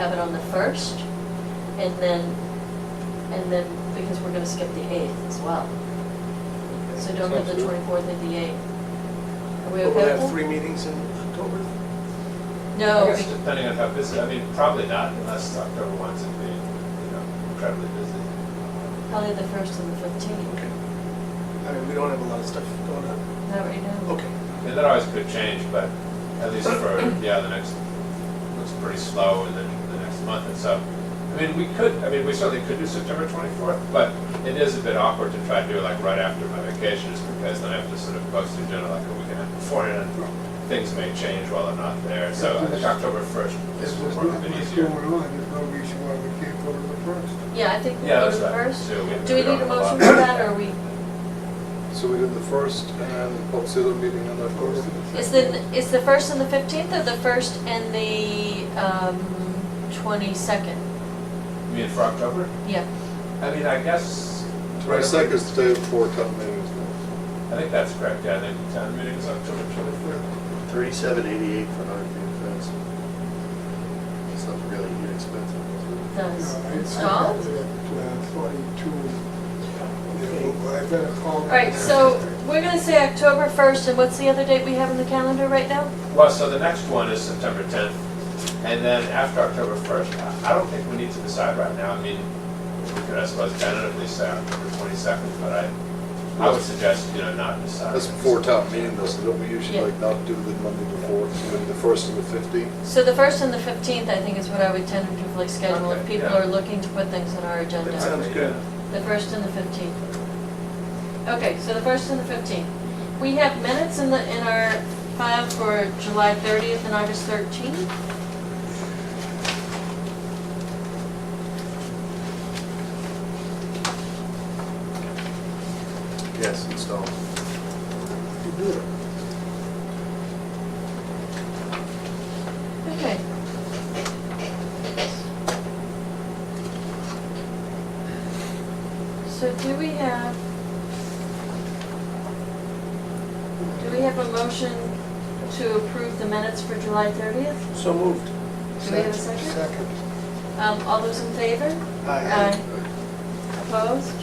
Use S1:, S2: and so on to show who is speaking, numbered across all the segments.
S1: have it on the first, and then, and then, because we're gonna skip the eighth as well. So don't have the
S2: Sounds good.
S1: twenty-fourth and the eighth. Are we
S2: But we'll
S1: okay
S2: have
S1: with
S2: three
S1: that?
S2: meetings in October?
S1: No,
S3: I guess
S1: we-
S3: depending on how busy, I mean, probably not unless October one's in being, you know, incredibly busy.
S1: probably the first and the fifteenth,
S2: Okay. I mean, we don't have a lot of stuff going on.
S1: not right now.
S2: Okay.
S3: And that always could change, but at least for, yeah, the next, looks pretty slow in the, the next month and so. I mean, we could, I mean, we certainly could do September twenty-fourth, but it is a bit awkward to try to do it like right after my vacation just because then I have to sort of post the agenda like a weekend beforehand. and Things may change while I'm not there, so I think October first
S4: There's
S3: is
S4: just
S3: a
S4: not
S3: bit
S4: much
S3: easier.
S4: going on, there's no reason why we can't go to the first.
S1: Yeah, I think we'll
S3: Yeah,
S1: go to
S3: that's
S1: the
S3: right.
S1: first.
S3: So
S1: Do we
S3: don't
S1: need a
S3: have lot
S1: motion
S3: of-
S1: for that, or we,
S5: So we did the first and then what's the other meeting on that first?
S1: is the, is the first and the fifteenth, or the first and the, um, twenty-second?
S3: You mean for October?
S1: Yeah,
S3: I mean, I guess.
S5: Twenty-second is the day before town meeting. isn't
S3: I think that's correct, yeah, I think the town meeting is October twenty-third.
S6: Thirty-seven eighty-eight for an RV fence. It's not really inexpensive.
S1: it
S4: You
S1: does.
S4: know, I- I
S1: Installed?
S4: have it at, uh, Forty-two, Yeah, well, I better call.
S1: All right, so we're gonna say October first, and what's the other date we have on the calendar right now?
S3: Well, so the next one is September tenth, and then after October first, I I don't think we need to decide right now, I mean, we could, I suppose, tentatively say October twenty-second, but I, I would suggest, you know, not
S5: it?
S3: decide.
S5: That's before town meeting, though, so don't we usually
S1: Yeah.
S5: like not do the Monday before, so maybe the first and the fifteenth?
S1: So the first and the fifteenth, I think, is what I would tentatively schedule, if
S3: Okay,
S1: people
S3: yeah.
S1: are looking to put things on our agenda.
S2: That sounds good.
S1: The first and the fifteenth. Okay, so the first and the fifteenth. We have minutes in the, in our file for July thirtieth and August thirteenth.
S6: Yes, installed.
S4: You do it.
S1: Okay. So do we have, do we have a motion to approve the minutes for July thirtieth?
S2: So moved.
S1: Do we have a second?
S4: Second.
S1: Um, all those in favor? Opposed?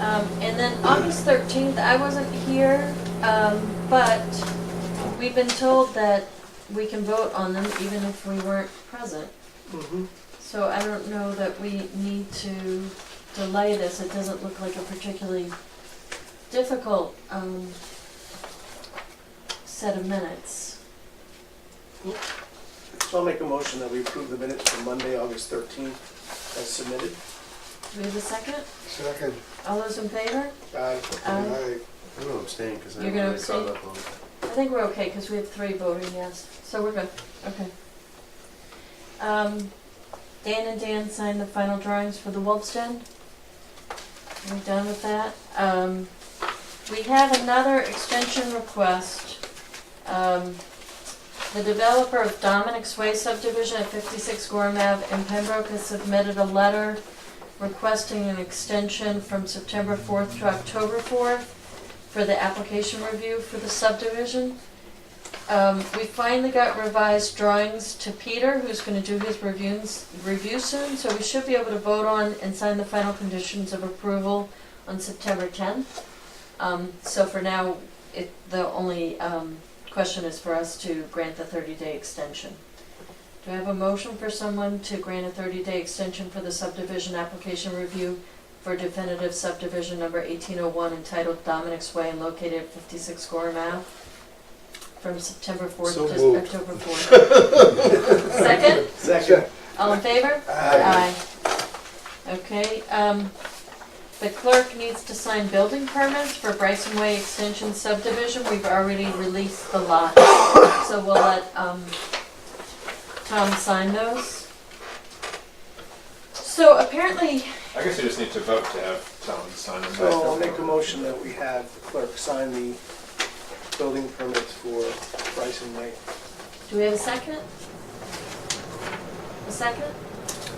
S1: Um, and then August thirteenth, I wasn't here, um, but we've been told that we can vote on them even if we weren't present.
S2: Mhm.
S1: So I don't know that we need to delay this, it doesn't look like a particularly difficult, um, set of minutes.
S2: So I'll make a motion that we approve the minutes for Monday, August 13th, as submitted.
S1: Do we have a second?
S4: Second.
S1: All those in favor?
S2: Aye.
S1: Aye.
S4: Aye.
S6: I'm gonna abstain because I
S1: You're
S6: haven't
S1: gonna
S6: really
S1: abstain?
S6: caught up on it.
S1: I think we're okay, because we have three voting yes, so we're good, okay. Um, Dan and Dan signed the final drawings for the Wolf's Den. We're done with that. Um, we have another extension request. Um, the developer of Dominic's Way subdivision at fifty-six Gorham Ave in Pembroke has submitted a letter requesting an extension from September fourth to October fourth for the application review for the subdivision. Um, we finally got revised drawings to Peter, who's gonna do his reviews, review soon, so we should be able to vote on and sign the final conditions of approval on September tenth. Um, so for now, it, the only, um, question is for us to grant the thirty-day extension. Do I have a motion for someone to grant a thirty-day extension for the subdivision application review for definitive subdivision number eighteen oh one entitled Dominic's Way and located at fifty-six Gorham Ave from September fourth
S5: So
S1: to
S5: moved.
S1: October fourth. Second,
S2: Second.
S1: all in favor? Aye. Okay, um, the clerk needs to sign building permits for Bryson Way Extension subdivision. We've already released the lot. So we'll let, um, Tom sign those. So apparently,
S3: I guess you just need to vote to have Tom sign them.
S2: So I'll make a motion that we have the clerk sign the building permits for Bryson Lake.
S1: Do we have a second? A second?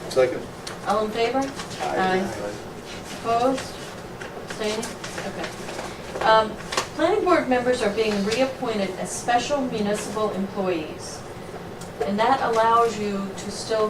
S5: Second?
S1: All in favor? Aye.
S6: Aye.
S1: Opposed? Abstaining? Okay. Um, Planning board members are being reappointed as special municipal employees. And that allows you to still